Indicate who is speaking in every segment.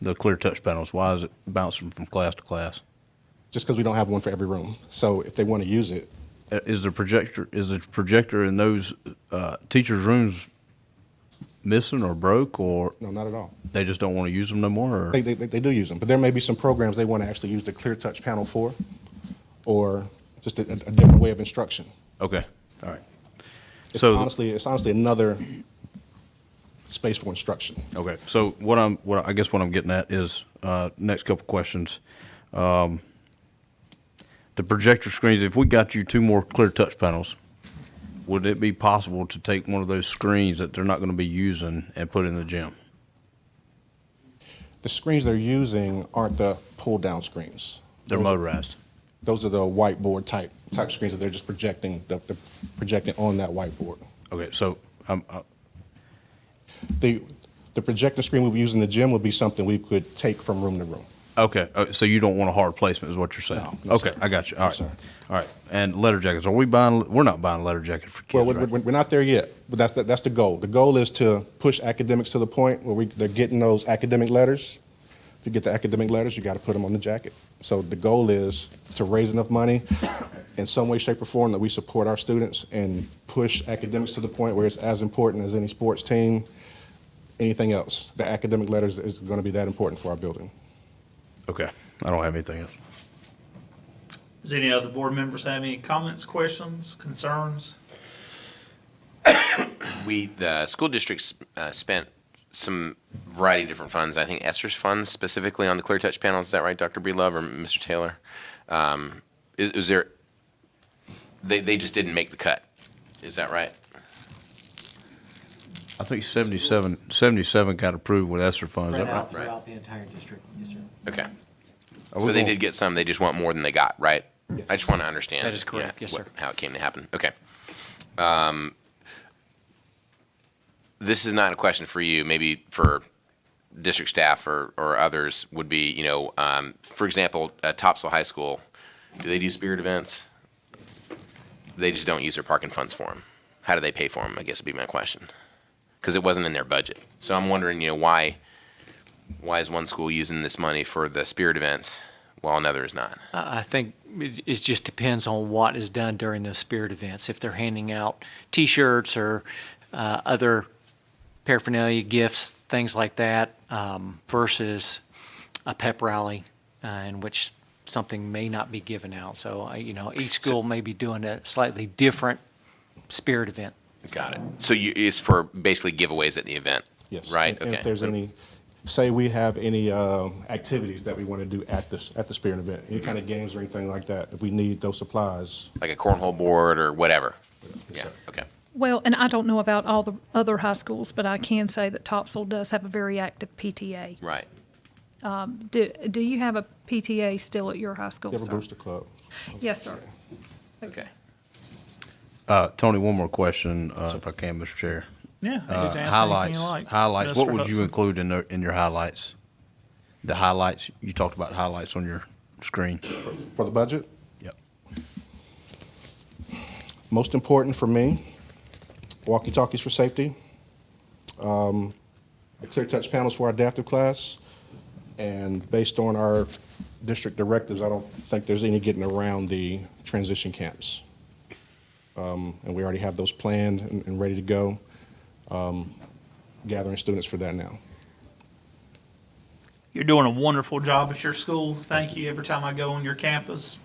Speaker 1: the clear touch panels? Why is it bouncing from class to class?
Speaker 2: just because we don't have one for every room. So if they want to use it,
Speaker 1: Uh, Is the projector, is the projector in those uh, teachers' rooms missing or broke, or
Speaker 2: no, not at all.
Speaker 1: they just don't want to use them no more? Or?
Speaker 2: They, they, they do use them, but there may be some programs they want to actually use the clear touch panel for, or just a, a different way of instruction.
Speaker 1: Okay, all right.
Speaker 2: It's
Speaker 1: So-
Speaker 2: honestly, it's honestly another space for instruction.
Speaker 1: Okay, so what I'm, what I I guess what I'm getting at is, uh, next couple questions. Um, The projector screens, if we got you two more clear touch panels, would it be possible to take one of those screens that they're not gonna be using and put in the gym?
Speaker 2: The screens they're using aren't the pull down screens.
Speaker 1: They're motorized.
Speaker 2: Those are the whiteboard type type screens that they're just projecting the, the projecting on that whiteboard.
Speaker 1: Okay, so, um, uh,
Speaker 2: The the projector screen we'll be using in the gym would be something we could take from room to room.
Speaker 1: okay, uh, so you don't want a hard placement is what you're saying?
Speaker 2: No, no,
Speaker 1: Okay,
Speaker 2: sir.
Speaker 1: I got you,
Speaker 2: No,
Speaker 1: all right.
Speaker 2: sir.
Speaker 1: All right, and letter jackets, are we buying, we're not buying letter jackets for
Speaker 2: Well,
Speaker 1: kids,
Speaker 2: we're,
Speaker 1: right?
Speaker 2: we're we're not there yet, but that's, the- that's the goal. The goal is to push academics to the point where we, they're getting those academic letters. If you get the academic letters, you got to put them on the jacket. So the goal is to raise enough money in some way, shape, or form that we support our students and push academics to the point where it's as important as any sports team, anything else. The academic letters is going to be that important for our building.
Speaker 1: Okay, I don't have anything else.
Speaker 3: Does any other board members have any comments, questions, concerns?
Speaker 4: We, the school districts uh, spent some variety of different funds. I think Esther's funds specifically on the Clear Touch panels. Is that right, Dr. Breedlove or Mr. Taylor? Um, is, is there, they, they just didn't make the cut. Is that right?
Speaker 1: I think 77, 77 got approved with ESSER funds, is
Speaker 5: Spread
Speaker 1: that right?
Speaker 5: out
Speaker 4: Right.
Speaker 5: throughout the entire district, yes, sir.
Speaker 4: Okay.
Speaker 1: we
Speaker 4: So they
Speaker 1: going-
Speaker 4: did get some, they just want more than they got, right? I just want to understand.
Speaker 6: That is correct.
Speaker 4: yeah,
Speaker 6: Yes,
Speaker 4: what-
Speaker 6: sir.
Speaker 4: How it came to happen, okay. Um, This is not a question for you, maybe for district staff or, or others would be, you know, um, for example, uh, Topsail High School, do they do spirit events? They just don't use their parking funds for them. How do they pay for them, I guess would be my question. Because it wasn't in their budget. So I'm wondering, you know, why, why is one school using this money for the spirit events while another is not?
Speaker 6: I I think it, it just depends on what is done during those spirit events. If they're handing out T-shirts or uh, other paraphernalia, gifts, things like that, um, versus a pep rally uh, in which something may not be given out. So, I- you know, each school may be doing a slightly different spirit event.
Speaker 4: Got it. So you, it's for basically giveaways at the event?
Speaker 2: Yes.
Speaker 4: Right?
Speaker 2: And- And
Speaker 4: Okay.
Speaker 2: if there's any, say we have any um, activities that we want to do at this, at the Spirit event, any kind of games or anything like that, if we need those supplies.
Speaker 4: Like a cornhole board or whatever? Yeah, okay.
Speaker 7: Well, and I don't know about all the other high schools, but I can say that Topsail does have a very active PTA.
Speaker 4: Right.
Speaker 7: Do, do you have a PTA still at your high school,
Speaker 2: We have a
Speaker 7: sir?
Speaker 2: booster club.
Speaker 7: Yes, sir.
Speaker 4: Okay.
Speaker 1: Uh, Tony, one more question, uh, if I can, Mr. Chair.
Speaker 3: Yeah, I
Speaker 1: Uh,
Speaker 3: get to answer anything
Speaker 1: highlights,
Speaker 3: you like.
Speaker 1: highlights. What
Speaker 3: Mr.
Speaker 1: would you
Speaker 3: Hudson.
Speaker 1: include in the, in your highlights? The highlights you talked about highlights on your screen.
Speaker 2: For the budget,
Speaker 1: Yep.
Speaker 2: most important for me, walkie-talkies for safety, um, the clear touch panels for our adaptive class, and based on our district directives, I don't think there's any getting around the transition camps. Um, And we already have those planned and and ready to go, um, gathering students for that now.
Speaker 3: You're doing a wonderful job at your school. Thank you. Every time I go on your campus,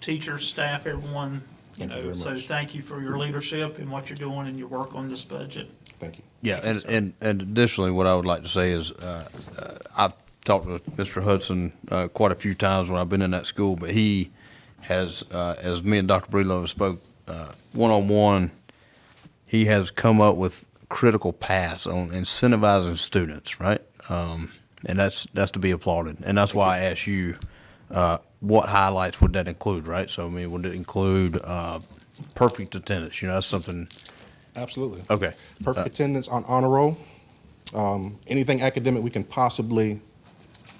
Speaker 3: teachers, staff, everyone, you
Speaker 2: Thank you
Speaker 3: know,
Speaker 2: very
Speaker 3: so
Speaker 2: much.
Speaker 3: thank you for your leadership and what you're doing and your work on this budget.
Speaker 2: Thank you.
Speaker 1: Yeah, and, and, and additionally, what I would like to say is, uh, uh, I've talked with Mr. Hudson, uh, quite a few times when I've been in that school, but he has, uh, as me and Dr. Breedlove spoke, uh, one-on-one, he has come up with critical paths on incentivizing students, right? Um, and that's, that's to be applauded. And that's why I asked you, uh, what highlights would that include, right? So, I mean, would it include, uh, perfect attendance? You know, that's something,
Speaker 2: Absolutely.
Speaker 1: okay.
Speaker 2: Perfect attendance on honor roll. Um, Anything academic we can possibly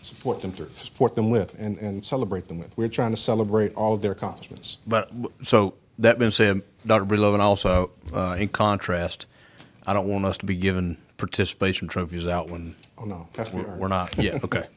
Speaker 2: support them through, support them with, and, and celebrate them with. We're trying to celebrate all of their accomplishments.
Speaker 1: But so that being said, Dr. Breedlove, and also uh, in contrast, I don't want us to be giving participation trophies out when
Speaker 2: Oh, no, it has to be
Speaker 1: we're
Speaker 2: earned.
Speaker 1: we're not. Yeah, okay.